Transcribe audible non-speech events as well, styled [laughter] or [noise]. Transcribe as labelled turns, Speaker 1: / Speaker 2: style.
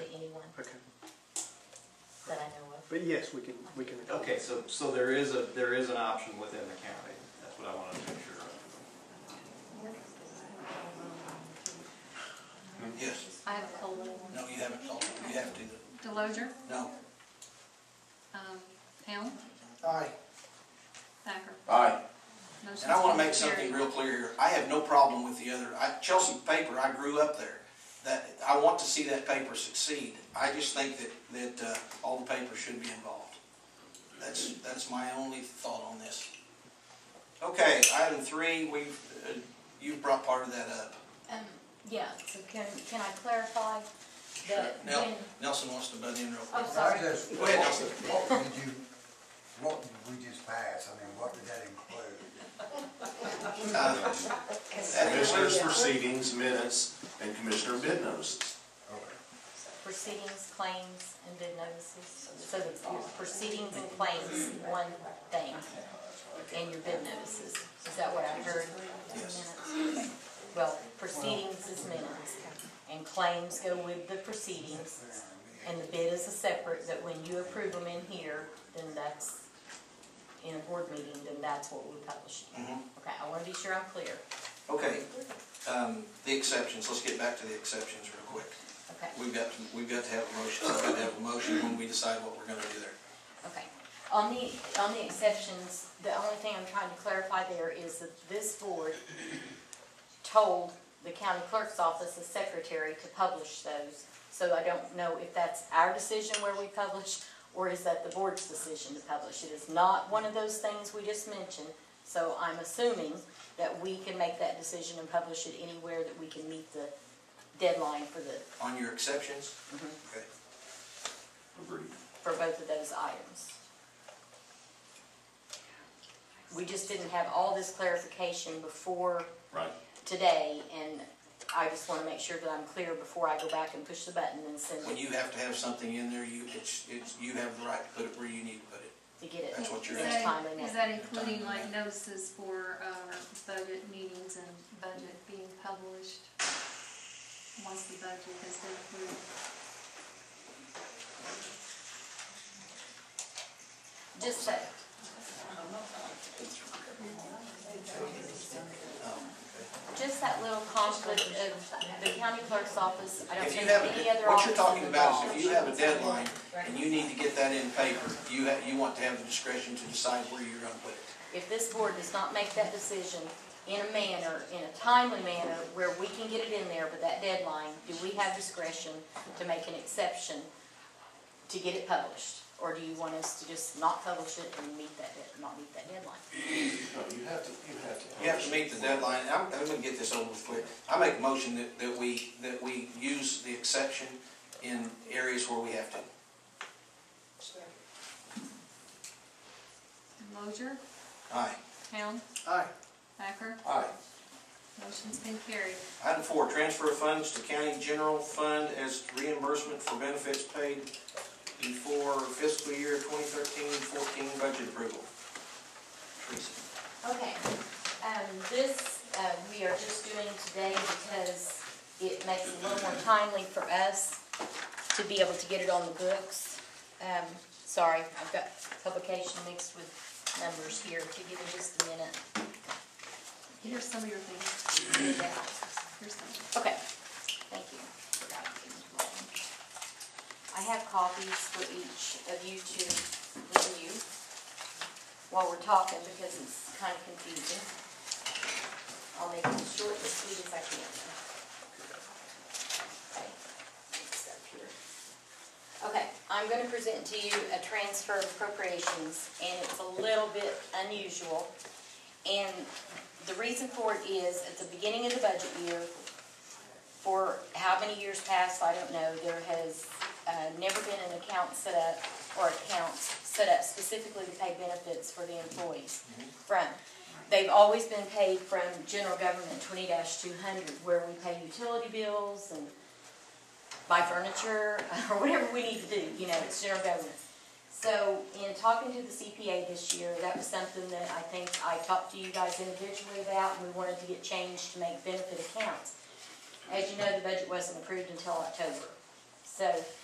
Speaker 1: But yes, we can, we can.
Speaker 2: Okay, so, so there is a, there is an option within the county, that's what I wanted to make sure of.
Speaker 3: Yes.
Speaker 4: I have a cold little one.
Speaker 3: No, you haven't sold it. You have to.
Speaker 4: Deloger,
Speaker 3: No.
Speaker 4: um, Helm,
Speaker 3: Aye.
Speaker 4: Thacker.
Speaker 3: Aye.
Speaker 4: Motion's
Speaker 3: And I want to make
Speaker 4: carried.
Speaker 3: something real clear here. I have no problem with the other, I, Chelsea paper, I grew up there. That, I want to see that paper succeed. I just think that, that, uh, all the papers should be involved. That's, that's my only thought on this. Okay, item three, we've, uh, you've brought part of that up.
Speaker 5: Um, yeah, so can, can I clarify that
Speaker 3: Nel-
Speaker 5: when,
Speaker 3: Nelson wants to butt in real quick.
Speaker 5: I'm
Speaker 6: I
Speaker 5: sorry,
Speaker 6: just,
Speaker 3: Go ahead, Nelson.
Speaker 6: what did you, what did we just pass? I mean, what did that include?
Speaker 3: Uh, that
Speaker 7: Commissioners'
Speaker 3: includes-
Speaker 7: proceedings, minutes, and commissioner bid notices.
Speaker 6: Okay.
Speaker 5: proceedings, claims, and bid notices? So it's proceedings and claims, one thing, and your bid notices, is that what I heard?
Speaker 3: Yes.
Speaker 5: Well, proceedings is minutes, and claims go with the proceedings, and the bid is a separate, that when you approve them in here, then that's, in a board meeting, then that's what we publish. Okay, I wanna be sure I'm clear,
Speaker 3: Okay, um, the exceptions, let's get back to the exceptions real quick.
Speaker 5: okay?
Speaker 3: We've got, to- we've got to have a motion, we've got to have a motion when we decide what we're gonna do there.
Speaker 5: Okay, on the, on the exceptions, the only thing I'm trying to clarify there is that this board told the county clerk's office, the secretary, to publish those. So I don't know if that's our decision where we publish, or is that the board's decision to publish. It is not one of those things we just mentioned, so I'm assuming that we can make that decision and publish it anywhere that we can meet the deadline for the,
Speaker 3: On your exceptions? Okay.
Speaker 7: Agreed.
Speaker 5: for both of those items. We just didn't have all this clarification before
Speaker 7: Right.
Speaker 5: today, and I just wanna make sure that I'm clear before I go back and push the button and send
Speaker 3: When
Speaker 5: it
Speaker 3: you have to have something in there, you, it's, it's, you have the right to put it where you need to put it.
Speaker 5: to get it
Speaker 3: That's what you're
Speaker 5: next
Speaker 3: asking.
Speaker 5: time in
Speaker 4: Is
Speaker 5: there.
Speaker 4: that including like notices for our budget meetings and budget being published? Once the budget has been approved?
Speaker 5: Just that, just that little conflict of the county clerk's office, I don't
Speaker 3: If you
Speaker 5: think
Speaker 3: have,
Speaker 5: any
Speaker 3: a-
Speaker 5: other
Speaker 3: what
Speaker 5: office
Speaker 3: you're talking
Speaker 5: is
Speaker 3: about
Speaker 5: involved.
Speaker 3: is if you have a deadline and you need to get that in paper, you ha you want to have the discretion to decide where you're gonna put it.
Speaker 5: if this board does not make that decision in a manner, in a timely manner, where we can get it in there with that deadline, do we have discretion to make an exception to get it published? Or do you want us to just not publish it and meet that, dead- not meet that deadline?
Speaker 7: No, you have to, you have to.
Speaker 3: You have to meet the deadline, And I'm, I'm gonna get this over with quick. I make a motion that, that we, that we use the exception in areas where we have to.
Speaker 4: Deloger,
Speaker 3: Aye.
Speaker 4: Helm,
Speaker 3: Aye.
Speaker 4: Thacker,
Speaker 6: Aye.
Speaker 4: motion's been carried.
Speaker 3: Item four, transfer funds to county general fund as reimbursement for benefits paid before fiscal year 2013-14 budget approval. Teresa.
Speaker 5: Okay, um, this, uh, we are just doing today because it makes it a little more timely for us to be able to get it on the books. Um, sorry, I've got publication mixed with numbers here, if you give me just a minute.
Speaker 4: Here's some of your things,
Speaker 5: to do that.
Speaker 4: here's some.
Speaker 5: Okay, thank you. Forgot to give you one. I have copies for each of you to review while we're talking because it's kind of confusing. I'll make it as short and sweet as I can. Okay, it's up here. Okay, I'm gonna present to you a transfer of appropriations and it's a little bit unusual. And the reason for it is, at the beginning of the budget year, for how many years past, I don't know, there has uh, never been an account set up, or accounts set up specifically to pay benefits for the employees from. They've always been paid from general government twenty two hundred, where we pay utility bills and buy furniture, [laughs] or whatever we need to do, you know, it's general government. So in talking to the CPA this year, that was something that I think I talked to you guys individually about, and we wanted to get changed to make benefit accounts. As you know, the budget wasn't approved until October. So